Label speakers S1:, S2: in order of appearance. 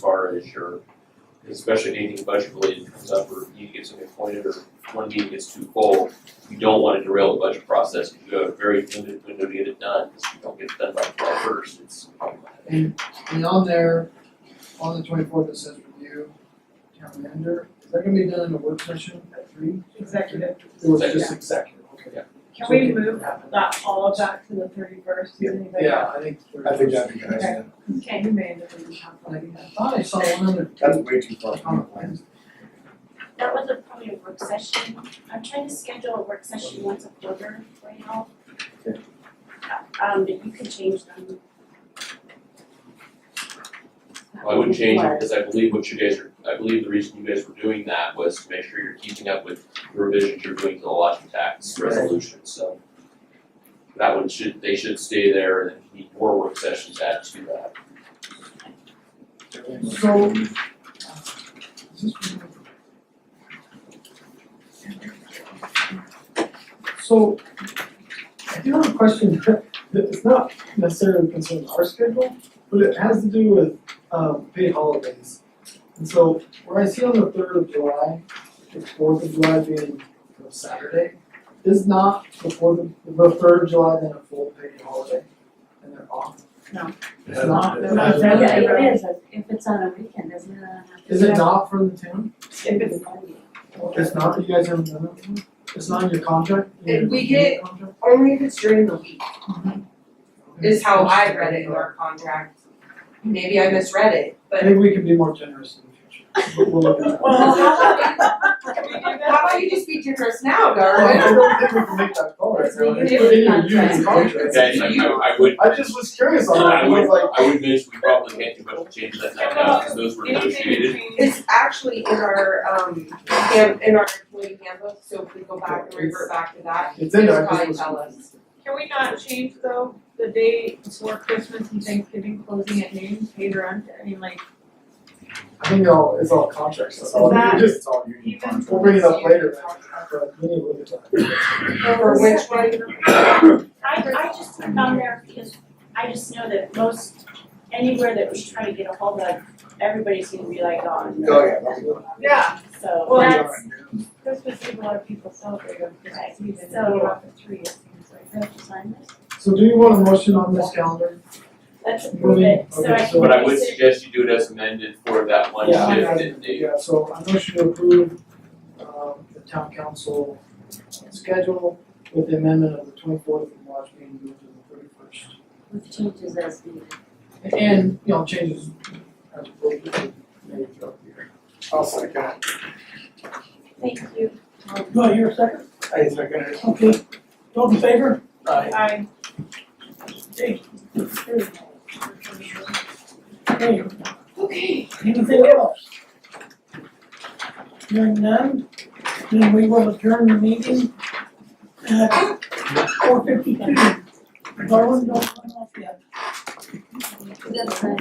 S1: this year, especially if anything budget related comes up or you get something appointed or one meeting gets too full, you don't want to derail the budget process. You have a very limited window to get it done, because if you don't get it done by July first, it's problematic.
S2: And on there, on the twenty-fourth, it says review, town manager, is that gonna be done in a work session at three?
S3: Executive.
S2: It was just executive, okay.
S3: Can
S2: So
S3: we
S2: it
S3: move
S2: happen.
S3: that, all of that to the thirty-first, does anybody?
S2: Yeah, I think.
S4: I think that'd be nice.
S3: Okay. Okay, you made it, we have
S2: I
S3: like that.
S2: thought I saw one other.
S4: That's way too far.
S2: Comment lines.
S5: That was a probably a work session. I'm trying to schedule a work session once a quarter right now. Uh, Um, but you can change them.
S1: I wouldn't change it, because I believe what you guys are, I believe the reason you guys were doing that was to make sure you're keeping up with the revisions you're doing to the lodging tax
S2: Right.
S1: resolution, so. That one should, they should stay there, and if you need more work sessions, add to that.
S2: So. uh, is this from- So, I do have a question, that it's not necessarily concerning our schedule, but it has to do with, um, paid holidays. And so, where I see on the third of July, the fourth of July being you know, Saturday, is not the fourth, of- the third of July then a full paid holiday? And they're off?
S6: No.
S2: It's not?
S4: Yeah,
S3: that's-
S6: Yeah,
S3: Yeah.
S6: it is, if it's on a weekend, isn't it? on a-
S2: Is it not from the town?
S3: If it's,
S2: It's not, you guys haven't done that before? It's not in your contract?
S7: And we get- Only if it's during the week,
S2: Mm-hmm.
S7: is how I read it in our contract. Maybe I misread it,
S2: I
S7: but
S2: think we can be more generous in the future, but we'll look at that.
S7: Well,
S3: can we do that?
S7: how about you just be generous now,
S2: Well, I
S7: Darwin?
S2: don't think we can make that call right now, it's
S7: It's
S2: within your
S7: in your
S2: union contract.
S1: Okay, I, I- I would,
S2: I just was curious on that,
S1: I
S2: I was
S1: would,
S2: like,
S1: I would mention we probably can't do much change that night now, because those were
S3: Anything
S1: negotiated.
S3: between,
S7: It's actually in our, um, hand- in our employee handbook, so if we go back and revert back to that,
S2: it's in there,
S7: It's
S2: I just
S7: probably
S2: was.
S7: tell us.
S3: can we not change though, the day before Christmas and Thanksgiving closing at noon, paid rent, I mean like,
S2: I think all, it's all contracts, that's all,
S3: That-
S2: we just,
S4: It's all union
S3: even.
S4: contract.
S2: we'll bring it up
S3: Yeah.
S2: later, but we need to look at that.
S7: For which one?
S5: I, I just put it on there because I just know that most, anywhere that we try to get a hold of, everybody's gonna be like on.
S4: Oh, yeah, that's good.
S3: Yeah,
S5: So,
S3: Well,
S2: Yeah.
S3: that's- Christmas Eve, a lot of people celebrate on Christmas Eve, and then you're off at three, it seems like.
S6: Do I have to sign this?
S2: So do you want a motion on this calendar?
S5: let's approve it, so I
S2: Okay,
S5: can.
S2: so-
S1: But I would
S5: research-
S1: suggest you do it as amended for that one
S2: Yeah, I-
S1: shift
S2: I-
S1: in the,
S2: Yeah, so I motion to approve, um, the town council schedule with the amendment of the twenty-fourth of March being moved to the thirty-first.
S6: With changes as needed.
S2: And, you know, changes as appropriate made throughout the year.
S4: I'll second it.
S5: Thank you.
S8: Do I hear a second?
S4: I second it.
S8: Okay. Those in favor?
S3: I
S8: Okay. Okay. Anything else? Hearing none, then we will adjourn the meeting at four fifty-two. Darwin, don't run off yet.
S6: That's fine.